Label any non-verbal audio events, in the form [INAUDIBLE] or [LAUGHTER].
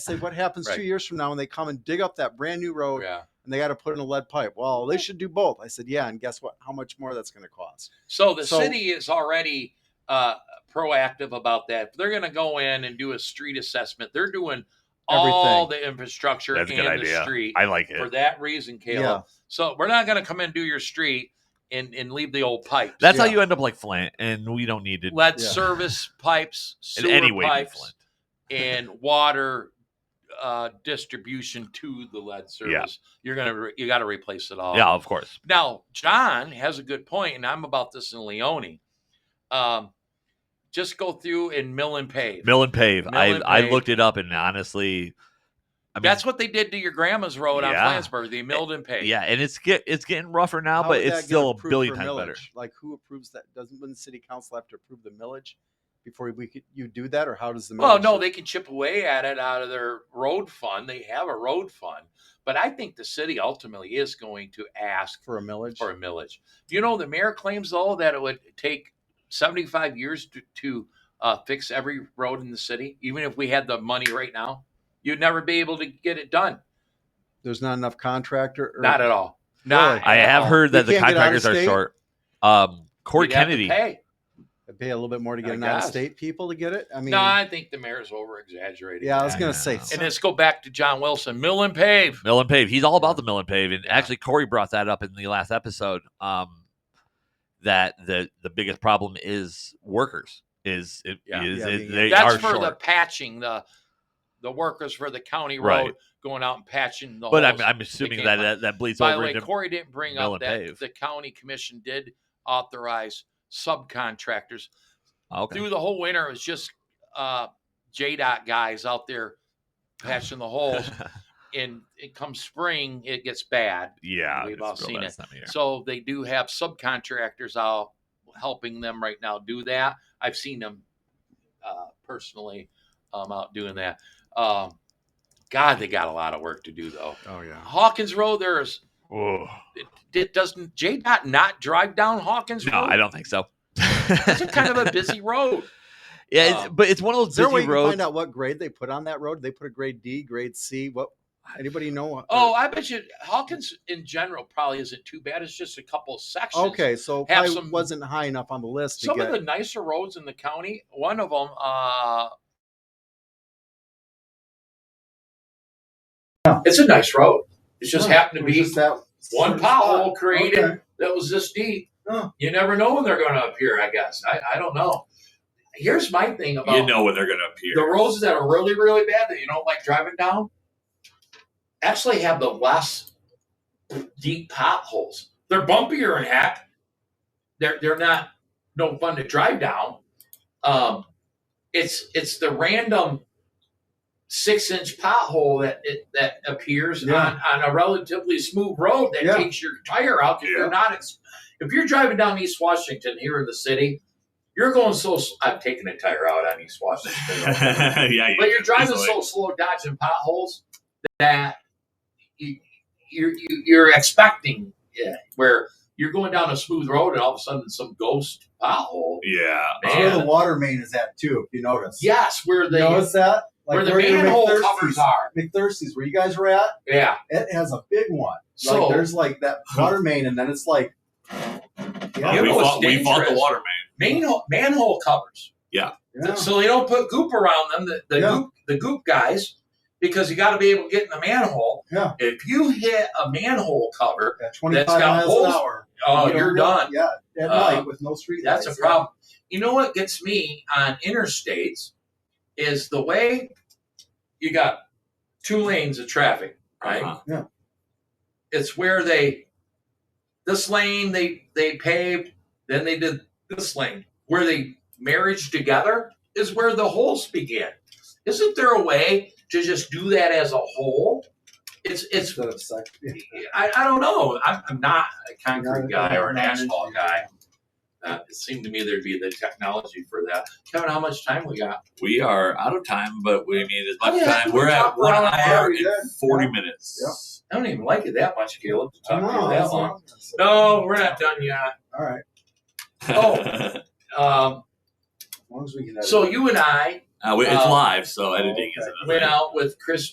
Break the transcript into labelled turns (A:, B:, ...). A: say what happens two
B: Right.
A: years from now when they come and dig up that brand new road
B: Yeah.
A: and they got to put in a lead pipe? Well, they should do both. I said, yeah, and guess what? How much more that's going to cost?
B: So the
A: So-
B: city is already uh, proactive about that. They're going to go in and do a street assessment. They're doing all the infrastructure
C: That's a
B: and
C: good
B: the
C: idea.
B: street
C: I like
B: for
C: it.
B: that reason, Caleb.
A: Yeah.
B: So we're not going to come in and do your street and, and leave the old pipes.
C: That's how
A: yeah.
C: you end up like Flint, and we don't need to
B: Lead
A: Yeah.
B: service pipes, sewer
C: in any way be
B: pipes,
C: Flint.
B: and water uh, distribution to the lead service. You're gonna re- you got to replace it all.
C: yeah, of course.
B: Now, John has a good point, and I'm about this in Leone. Um, just go through and mill and pave.
C: Mill and pave.
B: Mill
C: I
B: and
C: I
B: pave.
C: looked it up, and honestly, I mean,
B: That's what they did to your grandma's road on
C: Yeah. Eh,
B: Flansburgh. They milled and paved.
C: yeah, and it's get it's getting rougher now,
A: How
C: but
A: would that
C: it's
A: get
C: still a
A: approved
C: billion
A: for
C: times better.
A: millage? Like who approves that? Doesn't wouldn't city council have to approve the millage before we could you do that, or how does the millage?
B: Well, no,
A: work?
B: they can chip away at it out of their road fund. They have a road fund, but I think the city ultimately is going to ask
A: for a millage.
B: for a millage. You know, the mayor claims though that it would take 75 years to, to uh, fix every road in the city, even if we had the money right now. You'd never be able to get it done.
A: There's not enough contractor. Or,
B: Not at all. Not
A: Really?
B: at
C: I have
B: all.
C: heard
A: We
C: that the
A: can't get out of
C: contractors are
A: state?
C: short. Um, Corey
B: You'd have to
C: Kennedy.
B: pay.
A: They pay a little bit more to
B: I
A: get an out
B: guess.
A: of state people to get it. I mean,
B: no, I think the mayor's over exaggerating.
A: yeah, I was
C: I
A: gonna
C: know.
A: say.
B: And let's go back to John Wilson, mill and pave.
C: Mill and Pave. He's all
A: Yeah.
C: about the Mill and Pave. And
B: Yeah.
C: actually, Corey brought that up in the last episode. Um, that the the biggest problem is workers. Is it is
B: Yeah.
A: Yeah,
C: it-
A: yeah, yeah.
C: they
B: That's
C: are
B: for
C: short.
B: the patching the the workers for the county road
C: Right.
B: going out and patching the.
C: but I'm,
B: holes.
C: I'm assuming
B: can't
C: that,
B: buy-
C: that that bleeds
B: By the
C: over
B: way,
C: into
B: Corey didn't bring
C: mill
B: up
C: and
B: that
C: pave.
B: the county commission did authorize subcontractors
C: Oh, okay.
B: through the whole winter. It was just uh, JDOT guys out there patching the holes,
C: [LAUGHS]
B: and it comes spring, it gets bad.
C: yeah,
B: We've
C: it's
B: all
C: real
B: seen
C: bad
B: it.
C: this time of year.
B: So they do have subcontractors out helping them right now do that. I've seen them uh, personally um, out doing that. Um, God, they got a lot of work to do though.
A: Oh yeah.
B: Hawkins Road, there's
C: Whoa.
B: it, it doesn't J dot not drive down Hawkins
C: No,
B: Road.
C: I don't think so. [LAUGHS]
B: It's a kind of a busy road.
C: yeah, it's,
B: um,
C: but it's one of those
A: Is there a way
C: busy
A: you can
C: roads.
A: find out what grade they put on that road? They put a grade D, grade C. What? Anybody know? what-
B: Oh, I bet you Hawkins in general probably isn't too bad. It's just a couple of sections.
A: okay. So
B: have
A: probably
B: some-
A: wasn't high enough on the list to
B: Some
A: get.
B: of the nicer roads in the county, one of them, uh,
A: Yeah.
B: it's a nice road. It's just
A: Huh,
B: happened
A: it
B: to
A: was
B: be
A: just that
B: one
A: certain spot.
B: pothole created
A: Okay.
B: that was this deep.
A: Huh.
B: You never know when they're going to appear. I guess I, I don't know. Here's my thing about
C: when they're gonna appear.
B: the roads that are really really bad that you don't like driving down. Actually, have the less deep potholes. They're bumpier and heck. They're they're not no fun to drive down. Um, it's it's the random six inch pothole that it, that appears
A: Yeah.
B: on, on a relatively smooth road that
A: Yeah.
B: takes your tire out. 'cause
A: Yeah.
B: You're not ex- if you're driving down East Washington here in the city, you're going so. s- I've taken a tire out on East
D: [LAUGHS]
B: [LAUGHS] Washington,
C: yeah,
B: but you're driving so slow, dodging potholes that you, you're you, you're expecting yeah, where you're going down a smooth road and all of a sudden some ghost pothole.
C: yeah.
A: That's where
B: Man.
A: the water main is at too. If you notice.
B: Yes, where
A: You
B: they
A: notice that?
B: where the
A: your
B: manhole
A: McThirsty's-
B: covers are.
A: McThirsty's, where you guys were at,
B: Yeah.
A: it has a big one.
B: So
A: like there's like that water main, and then it's like. Yeah,
B: You
D: we,
B: know what's
D: fought, we fought the
B: dangerous?
D: water man.
B: manhole manhole covers.
A: yeah.
B: So they don't put goop around them, the, the
A: Yeah.
B: goop the goop guys, because you gotta be able to get in the manhole.
A: Yeah.
B: If you hit a manhole cover,
A: At 25
B: got
A: miles
B: holes.
A: an hour.
B: oh
A: You don't
B: you're
A: know-
B: done.
A: Yeah, at
B: Uh,
A: night with no street
B: That's a
A: lights,
B: problem. You know what gets me on interstates is the way you got two lanes of traffic, right?
D: Uh-huh.
A: Yeah.
B: It's where they this lane they they paved, then they did this lane. Where they marriage together is where the holes begin. Isn't there a way to just do that as a whole? It's it's
A: Instead of sec- yeah.
B: I, I don't know. I'm, I'm not a concrete
A: Not-
B: guy or an
A: not an
B: asphalt
A: engineer.
B: guy. Uh, it seemed to me there'd be the technology for that. Kevin, how much time we got?
D: We are out of time, but we I mean as
B: Oh,
D: much
B: yeah,
D: time.
B: we
D: We're at
B: talked
D: one
B: about it.
D: hour and
A: Yeah, we did.
D: forty
A: Yeah.
D: minutes.
B: I don't even like it that much, Caleb, to talk to
A: No,
B: you that
A: that's
B: long.
A: not-
B: No, we're not done yet.
D: [LAUGHS]
A: All right.
B: Oh. Um,
C: long as we can. edit
B: So you and I
A: Uh, we, it's
B: Uh,
A: live, so editing is
D: Uh,
B: Um,
C: okay.
A: another.
B: went out with Chris